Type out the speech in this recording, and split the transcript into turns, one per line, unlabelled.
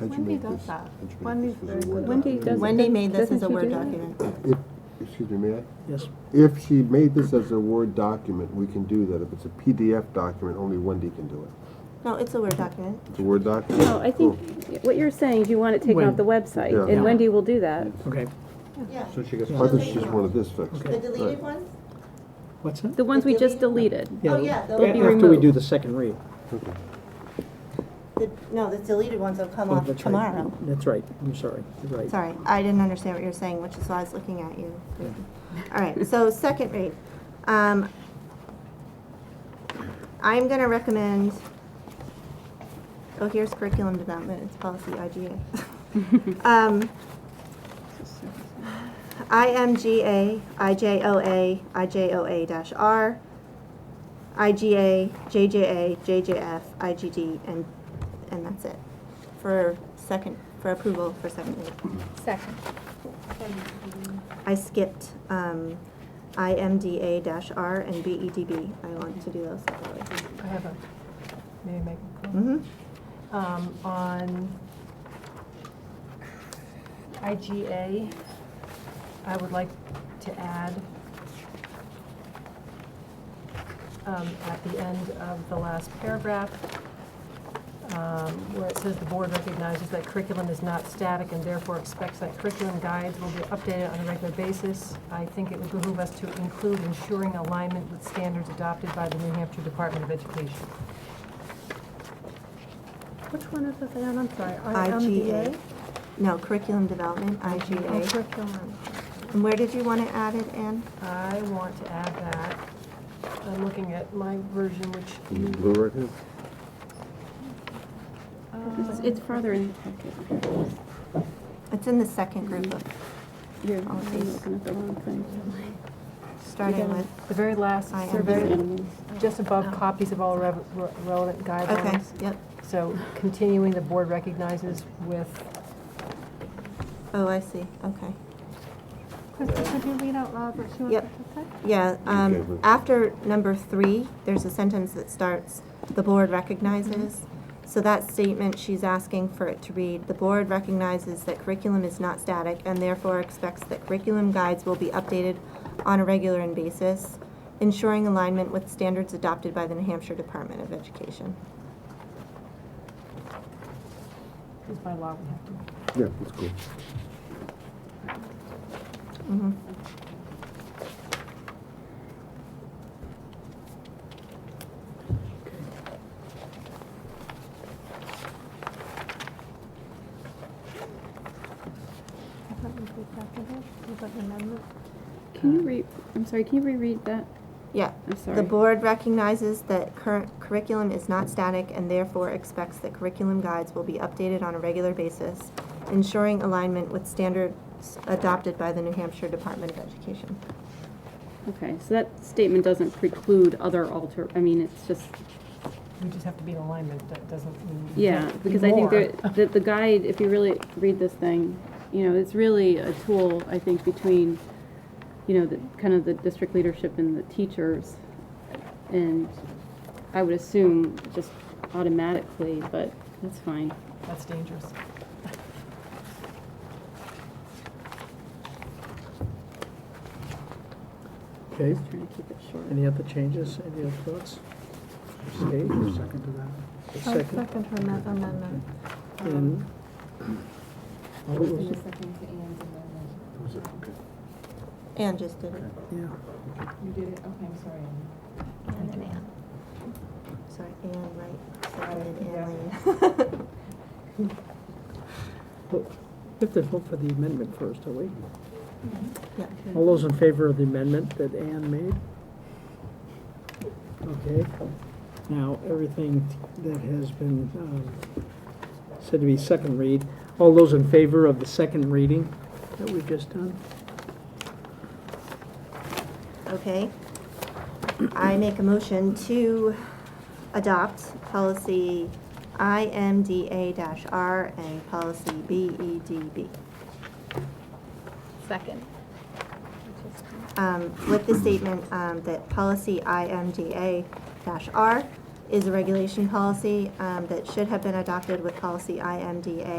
Wendy does that. Wendy's very good.
Wendy does.
Wendy made this as a Word document.
If, excuse me, may I?
Yes.
If she made this as a Word document, we can do that. If it's a PDF document, only Wendy can do it.
No, it's a Word document.
It's a Word document.
No, Oh, I think what you're saying is you want it taken off the website,
Yeah.
and Wendy will do that.
Okay,
Yeah.
So she gets.
I thought she just wanted this fixed.
The
okay.
deleted ones?
What's that?
The ones we just deleted.
Oh, yeah, they'll
a-
Oh, be
After we
removed.
do the second read.
The, no, the deleted ones will come
Oh,
off
that's right.
tomorrow.
That's right, I'm sorry, you're right.
Sorry, I didn't understand what you were saying, which is why I was looking at you. All right, so second read. Um, I'm going to recommend, oh, here's curriculum development, it's policy IGA. Um, IMGA, IJOA, IJOA-R, IGA, JJA, JJF, IGD, and, and that's it. For second, for approval for second read.
Second.
I skipped um, IMDA-R and BEDB. I want to do those separately.
I have a, may I make a comment?
Mhm.
um, on IGA, I would like to add um, at the end of the last paragraph, um, where it says the board recognizes that curriculum is not static and therefore expects that curriculum guides will be updated on a regular basis. I think it would behoove us to include ensuring alignment with standards adopted by the New Hampshire Department of Education.
Which one is this again? I'm sorry.
IGA? No, curriculum development,
Oh,
IGA.
IGA.
Curriculum.
And where did you want to add it, Anne?
I want to add that, I'm looking at my version, which
Is it
you,
Blue right here?
It's- It's
um,
farther in the packet.
It's in the second group of,
You're I'm looking at the wrong thing.
starting with,
the very last,
I am
the
very-
very,
Oh.
just above copies of all rev- re- relevant
okay,
guidelines.
yep.
So continuing, the board recognizes with,
Oh, I see, okay.
Krista, could you read out loud what she
Yep.
wanted to say?
Yeah,
Okay,
um,
but-
after number three, there's a sentence that starts, "The board recognizes." So that statement, she's asking for it to read, "The board recognizes that curriculum is not static and therefore expects that curriculum guides will be updated on a regular and basis, ensuring alignment with standards adopted by the New Hampshire Department of Education."
is by law we have to.
Yeah, that's cool.
Mhm.
I thought we did second it. Was that an amendment?
Can you re, I'm sorry, can you reread that?
Yeah.
I'm sorry.
The board recognizes that current curriculum is not static and therefore expects that curriculum guides will be updated on a regular basis, ensuring alignment with standards adopted by the New Hampshire Department of Education.
Okay, so that statement doesn't preclude other alter, I mean, it's just,
We just have to be in alignment, that doesn't mean. we
yeah,
can't be
because I think
more.
that, that the guide, if you really read this thing, you know, it's really a tool, I think, between, you know, the, kind of the district leadership and the teachers. And I would assume just automatically, but that's fine.
That's dangerous.
Okay,
Just trying to keep it short.
any other changes, any other thoughts? Okay, you're second to that. The
Oh,
I second her amend- amendment.
And.
um,
What was it?
Was it- okay.
Anne just did it.
Yeah,
And then Anne. Sorry, Anne, right. Seconded
Yeah.
Anne Lane.
Well, we have to vote for the amendment first, are we?
Yeah.
All those in favor of the amendment that Ann made? Okay. Now, everything that has been um, said to be second read, all those in favor of the second reading that we've just done?
Okay. I make a motion to adopt policy IMDA-R and policy E BEDB.
Second.
um, with the statement um, that policy IMDA-R is a regulation policy um, that should have been adopted with policy IMDA